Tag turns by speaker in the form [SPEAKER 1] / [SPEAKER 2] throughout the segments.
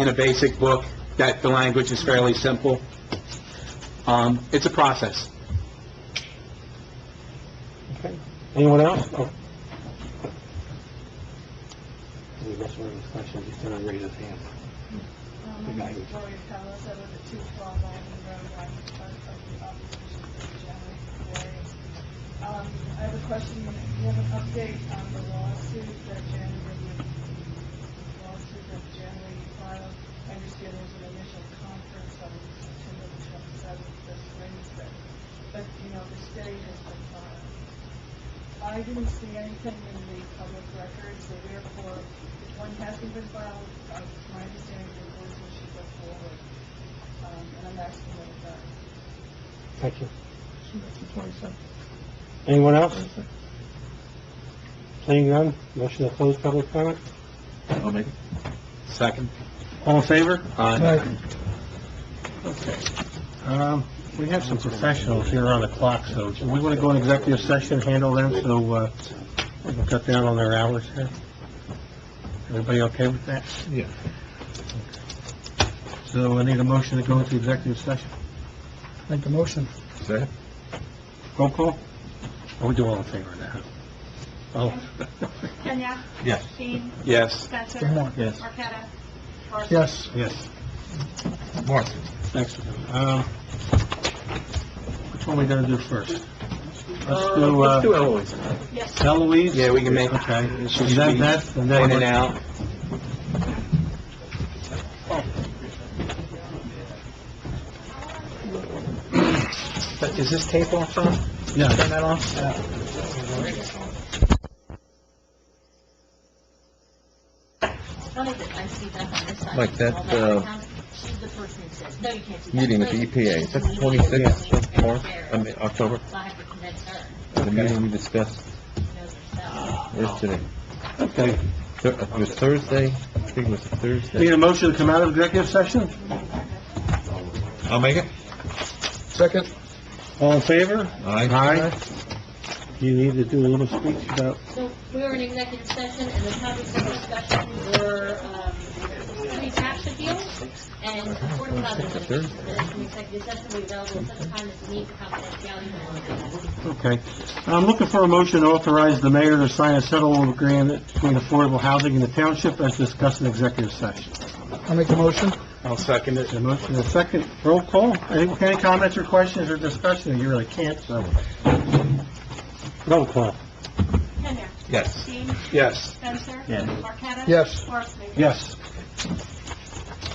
[SPEAKER 1] in a basic book, that the language is fairly simple. Um, it's a process.
[SPEAKER 2] Anyone else? Oh. We lost one of his questions, he's gonna raise his hand.
[SPEAKER 3] Um, My name is Gloria Pellis, I live at 212 Alton Road, I'm part of the opposition to the January variance. Um, I have a question, you have an update on the lawsuit that January, lawsuit that January filed? I understand there's an initial conference on September 27th, this Wednesday, but, you know, the stay has been filed. I didn't see anything in the public record, so therefore, if one hasn't been filed, uh, it's my understanding that the person should go forward. Um, and I'm asking that it does.
[SPEAKER 2] Thank you.
[SPEAKER 4] So that's the 27th.
[SPEAKER 2] Anyone else? Seeing none, motion to close public comment?
[SPEAKER 4] I'll make it.
[SPEAKER 1] Second?
[SPEAKER 2] All in favor?
[SPEAKER 5] Um, we have some professionals here on the clock, so do we want to go in executive session, handle them, so, uh, we can cut down on their hours here? Everybody okay with that?
[SPEAKER 4] Yeah.
[SPEAKER 5] So I need a motion to go into executive session. Make the motion.
[SPEAKER 4] Second?
[SPEAKER 5] Roll call? Are we doing all in favor now? Oh,
[SPEAKER 6] Kenya?
[SPEAKER 5] Yes.
[SPEAKER 6] Dean?
[SPEAKER 1] Yes.
[SPEAKER 6] Spencer?
[SPEAKER 5] Yes.
[SPEAKER 6] Marqueta? Marson?
[SPEAKER 5] Yes. Yes.
[SPEAKER 4] Mark?
[SPEAKER 5] Next, um, which one we gonna do first? Let's do, uh,
[SPEAKER 1] Eloise.
[SPEAKER 6] Yes.
[SPEAKER 5] Eloise?
[SPEAKER 1] Yeah, we can make-
[SPEAKER 5] Okay. And
[SPEAKER 1] Should
[SPEAKER 5] that-
[SPEAKER 1] be
[SPEAKER 5] that's- and that-
[SPEAKER 1] In and out. But Is this tape off, Tom?
[SPEAKER 5] Yeah.
[SPEAKER 1] Turn that off?
[SPEAKER 7] Funny that I see that on this side.
[SPEAKER 4] Like that, uh,
[SPEAKER 7] She's the person that says, no, you can't do that.
[SPEAKER 4] Meeting with the E EPA, is that the 26th, Mark, I mean, October?
[SPEAKER 7] So I have to convince her,
[SPEAKER 4] The meeting we discussed
[SPEAKER 7] she knows herself.
[SPEAKER 4] yesterday.
[SPEAKER 5] Okay.
[SPEAKER 4] Thur- It was Thursday, I think it was
[SPEAKER 5] Need
[SPEAKER 4] Thursday.
[SPEAKER 5] a motion to come out of executive session?
[SPEAKER 4] I'll make it. Second?
[SPEAKER 5] All in favor?
[SPEAKER 4] Aye.
[SPEAKER 5] Do you need to do a little speech about
[SPEAKER 7] So we were in executive session, and the topics of discussion were, um, three tax appeals and affordable housing.
[SPEAKER 4] Thursday.
[SPEAKER 7] Minutes from executive session will be available at such time as the need for confidentiality.
[SPEAKER 5] Okay. I'm looking for a motion to authorize the mayor to sign a settlement agreement between affordable housing and the township as discussed in executive session. I'll make the motion.
[SPEAKER 1] I'll second it.
[SPEAKER 5] A motion, and a second, roll call. Any any comments or questions or discussion? You really can't, so.
[SPEAKER 2] Roll call.
[SPEAKER 6] Kenya?
[SPEAKER 4] Yes.
[SPEAKER 6] Dean?
[SPEAKER 1] Yes.
[SPEAKER 6] Spencer?
[SPEAKER 5] Yes.
[SPEAKER 6] Marqueta?
[SPEAKER 5] Yes.
[SPEAKER 6] Marson?
[SPEAKER 5] Yes.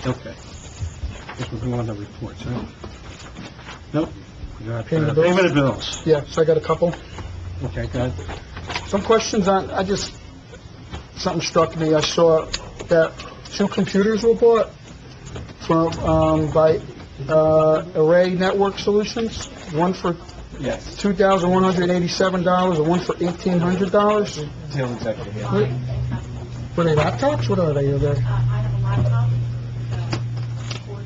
[SPEAKER 5] Okay. Guess we'll go on to reports, huh? Nope. We got, uh,
[SPEAKER 8] Payment of bills?
[SPEAKER 5] Payment of bills.
[SPEAKER 8] Yeah, so I got a couple.
[SPEAKER 5] Okay, go ahead.
[SPEAKER 8] Some questions on, I just, something struck me. I saw that two computers were bought from, um, by, uh, Array Network Solutions, one for
[SPEAKER 5] Yes.
[SPEAKER 8] two thousand one hundred and eighty-seven dollars and one for eighteen hundred dollars. Were they laptops? What are they? Are they,
[SPEAKER 6] Uh, I have a laptop, uh, of course,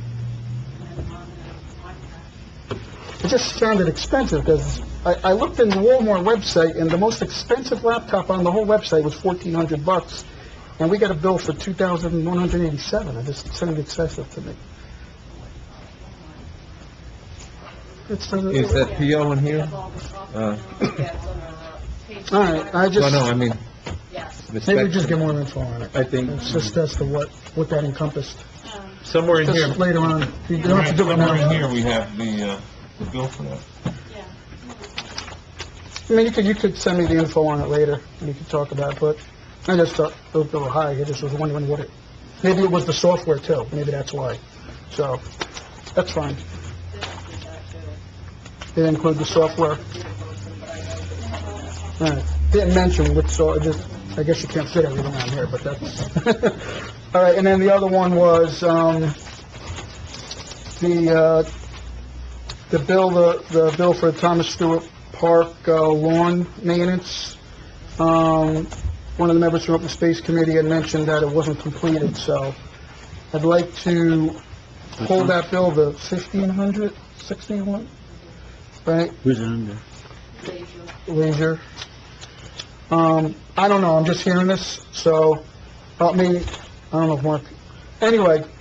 [SPEAKER 6] and I'm on an iPad. uh,
[SPEAKER 8] it just sounded expensive because I, I looked in the Walmart website and the most expensive laptop on the whole website was fourteen hundred bucks. And we got a bill for two thousand one hundred and eighty-seven. It just sounded excessive to me. It's for the-
[SPEAKER 4] Is that PO in here? Uh,
[SPEAKER 8] All right,
[SPEAKER 4] No,
[SPEAKER 8] I
[SPEAKER 4] no,
[SPEAKER 8] just,
[SPEAKER 4] I mean,
[SPEAKER 7] Yes.
[SPEAKER 4] the
[SPEAKER 8] maybe we just
[SPEAKER 4] spec-
[SPEAKER 8] get more info on it.
[SPEAKER 4] I think
[SPEAKER 8] It's just as to what, what that encompassed.
[SPEAKER 4] somewhere in here,
[SPEAKER 8] Just later on, you don't have to do it
[SPEAKER 4] somewhere in
[SPEAKER 8] now.
[SPEAKER 4] here, we have the, uh, the bill for that.
[SPEAKER 8] I mean, you could, you could send me the info on it later, and you could talk about it, but I just thought it was a little high, I just was wondering what it, maybe it was the software too, maybe that's why. So, that's fine. Did it include the software? Alright, didn't mention which, so, I just, I guess you can't fit everything on here, but that's... Alright, and then the other one was, um, the, uh, the bill, the, the bill for Thomas Stewart Park uh, lawn maintenance. Um, one of the members from Open Space Committee had mentioned that it wasn't completed, so I'd like to hold that bill to fifteen hundred, sixteen one, right,
[SPEAKER 5] Who's in there?
[SPEAKER 8] Leisure. Um, I don't know, I'm just hearing this, so, help me, I don't know if Mark, anyway,